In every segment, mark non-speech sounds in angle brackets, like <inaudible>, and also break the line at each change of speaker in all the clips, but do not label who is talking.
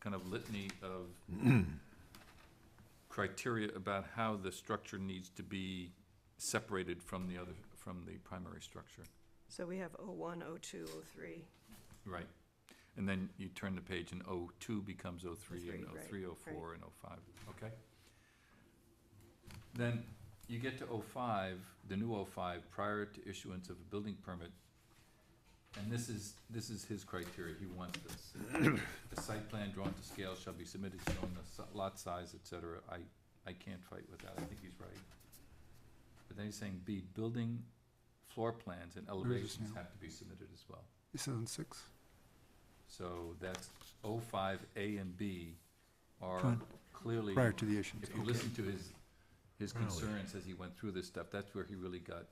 kind of litany of criteria about how the structure needs to be separated from the other, from the primary structure.
So we have O one, O two, O three.
Right. And then you turn the page and O two becomes O three and
O
O
three,
three, O four, and O five, okay? Then you get to O five, the new O five, prior to issuance of a building permit. And this is, this is his criteria, he wants this.
<coughs>
The site plan drawn to scale shall be submitted showing the so- lot size, et cetera. I, I can't fight with that, I think he's right. But then he's saying B, building floor plans and
is this
elevations
now?
have to be submitted as well.
This is on six.
So that's oh five, A and B are
Fine.
clearly,
Prior to the issuance.
if you
okay.
listen to his, his
Really?
concerns as he went through this stuff, that's where he really got,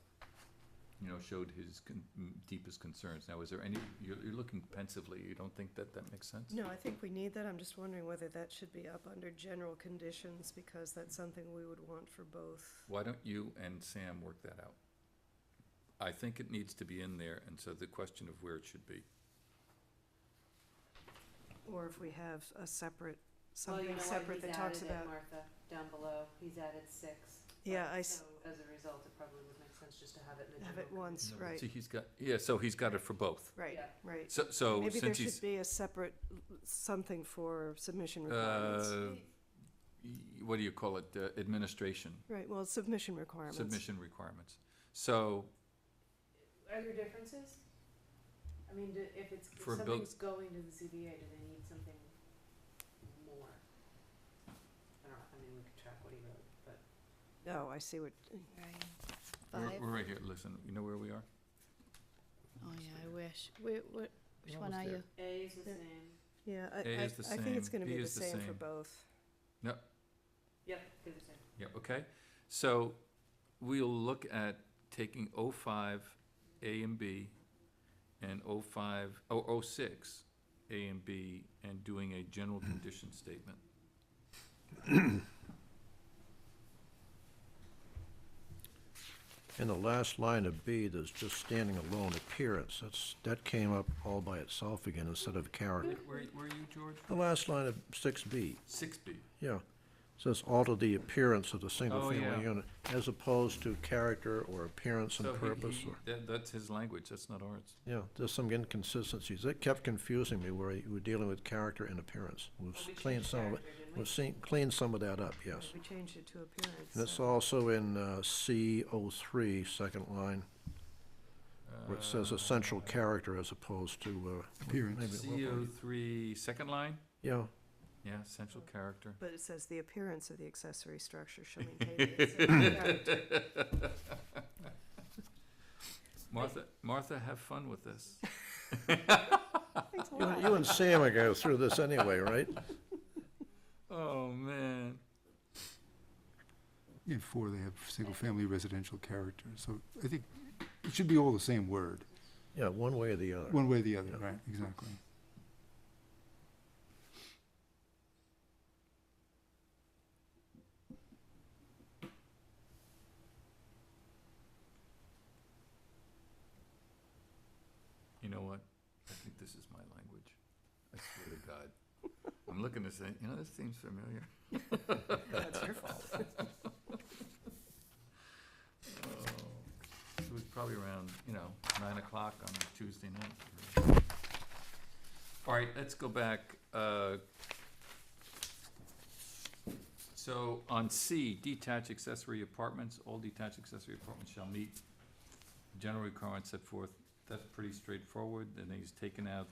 you know, showed his con- m- deepest concerns. Now, is there any, you're, you're looking pensively, you don't think that that makes sense?
No, I think we need that. I'm just wondering whether that should be up under general conditions, because that's something we would want for both.
Why don't you and Sam work that out? I think it needs to be in there, and so the question of where it should be.
Or if we have a separate,
Well,
something
you know what?
separate that
He's
talks
added it,
about.
Martha, down below, he's added six.
Yeah,
but-
I s-
So as a result, it probably would make sense just to have it in the
Have it
general.
once,
No, but
right,
See, he's got, yeah, so he's got it for both.
right,
Yeah.
right.
So, so
Maybe there
since
should
he's,
be a separate, l- something for submission requirements.
uh, y- what do you call it, uh, administration?
Right, well, submission requirements.
Submission requirements. So,
Are there differences? I mean, do- if it's, if
For a buil-
something's going to the ZBA, do they need something more? I don't know, I mean, we could track what he wrote, but.
Oh, I see what,
Right.
we're,
Five.
we're right here, listen, you know where we are?
Oh yeah, I wish. Wait, what? Which
We're
one
almost
are
there.
you?
A is the
Yeah.
same,
yeah, I,
A
I, I
is the
think it's
same,
gonna
B
be the
is the
same for
same.
both.
yep, they're the same.
Yeah, okay. So we'll look at taking O five, A and B, and O five, oh, O six, A and B, and doing a general
Hmm.
condition statement.
In the last line of B, there's just standing alone appearance. That's, that came up all by itself again instead of character.
Where, where are you, George?
The last line of six B,
Six B.
yeah. Says alter the appearance of the
Oh, yeah.
single-family unit as opposed to character or appearance
So
and
he-
purpose
he-
or,
That, that's his language, that's not ours.
yeah, there's some inconsistencies. That kept confusing me where you were dealing with character and appearance. We've
Well, we
cleaned
changed
some of it,
character, didn't we?
we've seen, cleaned some of that up, yes.
We changed it to appearance.
And it's
so-
also in uh, C03, second line, where it
Uh,
says essential character as opposed to. uh,
Appearance.
maybe it will be-
CO three, second line?
Yeah,
Yeah, essential character.
But it says the appearance of the accessory
<laughs>
structure shall maintain the essential character.
Martha, Martha, have fun with this.
Thanks a
you and-
lot.
you and Sam are going through this anyway, right?
Oh, man.
In four, they have single-family residential character, so I think it should be all the same word,
Yeah, one way or the other.
one way or the other,
Yeah.
right, exactly.
You know what? I think this is my language. I swear to God. I'm looking to say, you know, this seems familiar.
<laughs> That's your fault.
Oh, It was probably around, you know, nine o'clock on a Tuesday night. All right, let's go back. uh, So on C, detached accessory apartments, all detached accessory apartments shall meet general requirements set forth. That's pretty straightforward, and he's taken out.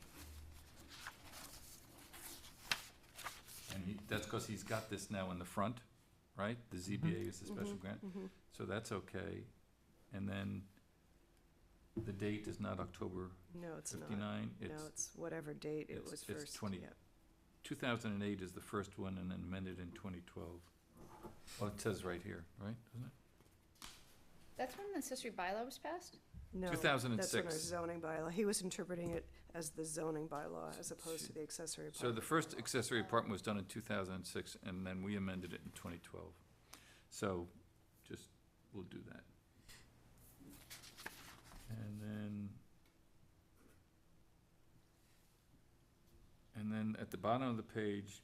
And he, that's because he's got this now in the front, right? The
Mm-hmm.
ZBA is the special grant.
Mhm.
So that's okay. And then the date is not October
No, it's not.
fifty-nine,
No,
it's
it's whatever date it
it's-
was
it's
first,
20.
yeah.
two thousand and eight is the first one and then amended in twenty twelve. Oh, it says right here, right, doesn't it?
That's when the accessory bylaw was passed.
No, that's when our
2006.
zoning bylaw, he was interpreting it as the zoning bylaw as opposed to the accessory
So the
apartment.
first accessory apartment was done in two thousand and six and then we amended it in twenty twelve. So just, we'll do that. And then. And then at the bottom of the page,